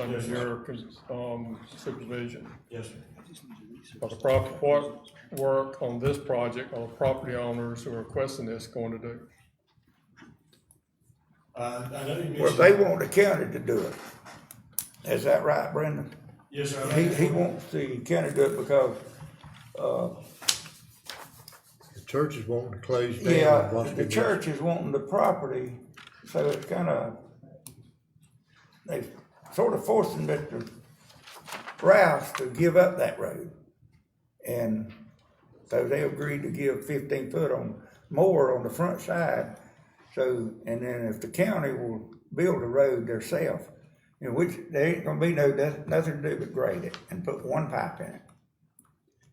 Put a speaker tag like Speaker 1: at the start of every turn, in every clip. Speaker 1: under your um, supervision.
Speaker 2: Yes, sir.
Speaker 1: Because the property, what work on this project are the property owners who are requesting this going to do?
Speaker 2: Uh, I know you mentioned.
Speaker 3: Well, they want the county to do it. Is that right, Brendan?
Speaker 2: Yes, sir. I
Speaker 3: He,
Speaker 2: know-
Speaker 3: he wants the county to do it because,
Speaker 4: The church is wanting to close down.
Speaker 3: yeah,
Speaker 4: and wants to
Speaker 3: the
Speaker 4: get-
Speaker 3: church is wanting the property, so it's kinda, they sort of forcing Mr. Rouse to give up that road. And so they agreed to give fifteen foot on, more on the front side. So, and then if the county will build a road theirself, you know, which there ain't gonna be no, noth- nothing to do but grade it and put one pipe in it.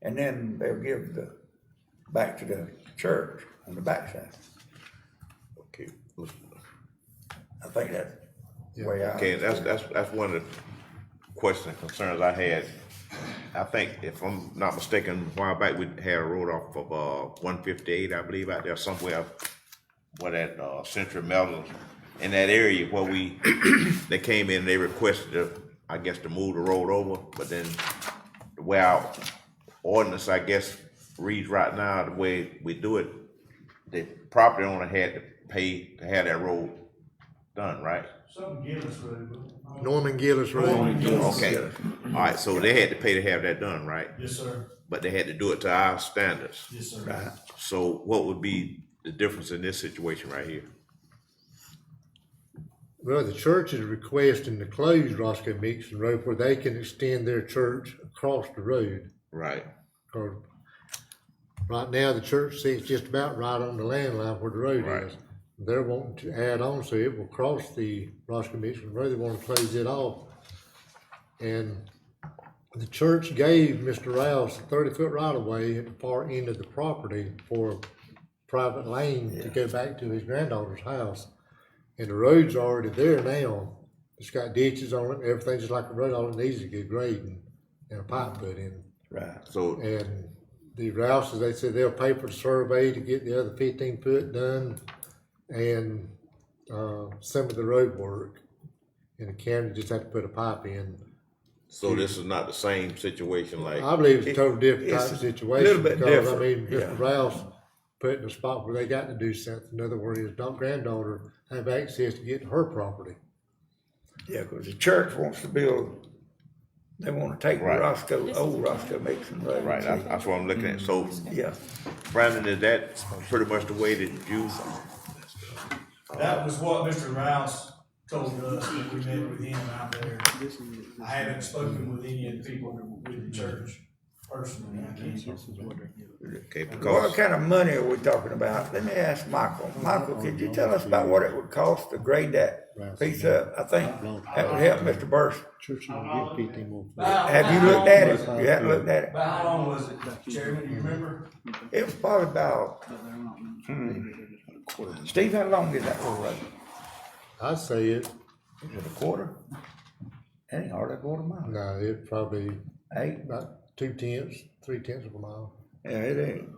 Speaker 3: And then they'll give the, back to the church on the backside.
Speaker 5: Okay, let's-
Speaker 3: I think that's the way out.
Speaker 5: okay, that's, that's, that's one of the questions and concerns I had. I think if I'm not mistaken, a while back, we had a road off of, uh, one fifty-eight, I believe, out there somewhere, where that, uh, Central Melville, in that area where we, they came in, they requested, to, I guess, to move the road over, but then the way our ordinance, I guess, reads right now, the way we do it, the property owner had to pay to have that road done, right?
Speaker 2: Something Gillis Road. but-
Speaker 4: Norman Gillis Road.
Speaker 5: Okay, all right, so they had to pay to have that done, right?
Speaker 2: Yes, sir.
Speaker 5: But they had to do it to our standards.
Speaker 2: Yes, sir.
Speaker 5: So what would be the difference in this situation right here?
Speaker 4: Well, the church is requesting to close Roscoe Meekson Road where they can extend their church across the road.
Speaker 5: Right,
Speaker 4: 'Cause right now, the church sits just about right on the land line where the
Speaker 5: Right.
Speaker 4: road is. They're wanting to add on, so it will cross the Roscoe Meekson Road. They want to close it off. And the church gave Mr. Rouse a thirty-foot right-of-way at the far end of the property for private lane to go back to his granddaughter's house. And the road's already there now. It's got ditches on it, everything's just like a road, all it needs is to get grading and a pipe put in.
Speaker 3: Right.
Speaker 5: so,
Speaker 4: And the Rouses, they said they'll pay for the survey to get the other fifteen foot done and, uh, some of the road work. And the county just had to put a pipe in.
Speaker 5: so this is not the same situation like,
Speaker 4: I believe it's a total different
Speaker 3: It's
Speaker 4: type of
Speaker 3: a
Speaker 4: situation.
Speaker 3: little bit
Speaker 4: because, I mean,
Speaker 3: different,
Speaker 4: Mr. Rouse put in a spot where they got to do something. In other words, his da- granddaughter have access to get to her property.
Speaker 3: Yeah, because the church wants to build, they want to take
Speaker 5: Right.
Speaker 3: Roscoe, old Roscoe Mixon Road.
Speaker 5: right, that's, that's what I'm looking at. So,
Speaker 3: Yeah,
Speaker 5: Brandon, is that pretty much the way that you,
Speaker 2: That was what Mr. Rouse told us when we met with him out there. I haven't spoken with any of the people with the church personally. I can't.
Speaker 5: okay,
Speaker 3: what
Speaker 5: because,
Speaker 3: kind of money are we talking about? Let me ask Michael. Michael, could you tell us about what it would cost to grade that piece up? I think that would help Mr. Burson.
Speaker 4: Church is gonna get fifteen more.
Speaker 3: Have you looked at it? You haven't looked at it?
Speaker 2: About how long was it, Chairman? Do you remember?
Speaker 3: It was probably about, hmm. Steve, how long is that little road?
Speaker 4: I say it,
Speaker 3: Is it a quarter? That ain't hardly a quarter mile.
Speaker 4: no, it probably
Speaker 3: Eight,
Speaker 4: about two tenths, three tenths of a mile.
Speaker 3: Yeah, it ain't.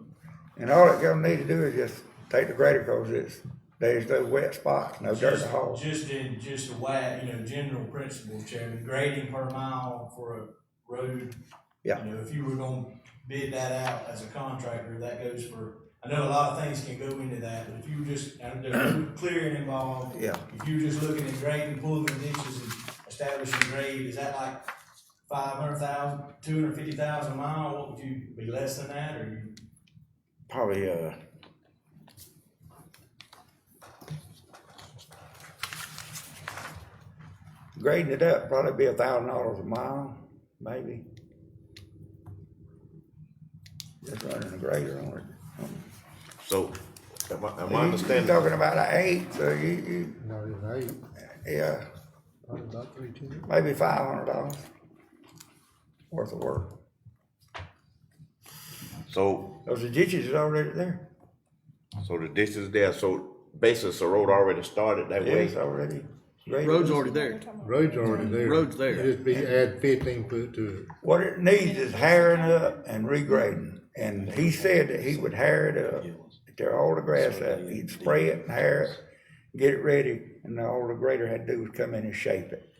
Speaker 3: And all it gonna need to do is just take the grader, cause it's, there's no wet spots, no dirt to
Speaker 2: Just,
Speaker 3: haul.
Speaker 2: just in, just a way, you know, general principle, Chairman, grading per mile for a road.
Speaker 3: Yeah.
Speaker 2: You know, if you were gonna bid that out as a contractor, that goes for, I know a lot of things can go into that, but if you were just, and there's no clearing involved.
Speaker 3: Yeah.
Speaker 2: If you were just looking at grading, pulling the ditches and establishing grade, is that like five hundred thousand, two hundred fifty thousand a mile? What would you, be less than that, or you?
Speaker 3: Probably, uh, grading it up, probably be a thousand dollars a mile, maybe. Just running a grader on it.
Speaker 5: so, am I, am I
Speaker 3: You- you
Speaker 5: understanding?
Speaker 3: talking about an eight, so you, you,
Speaker 4: No, it ain't,
Speaker 3: yeah,
Speaker 4: probably about three tenths.
Speaker 3: maybe five hundred dollars worth of work.
Speaker 5: So,
Speaker 3: Those ditches is already there.
Speaker 5: so the ditch is there, so basically, the road already started that way?
Speaker 3: Yes, already.
Speaker 6: Road's already there.
Speaker 4: Road's already there.
Speaker 6: Mm-hmm. Road's there.
Speaker 4: Just be, add fifteen foot to
Speaker 3: What it needs is hiring up and regrading, and he said that he would hire it up, tear all the grass up, he'd spray it and hire it, get it ready, and all the grader had to do was come in and shape it.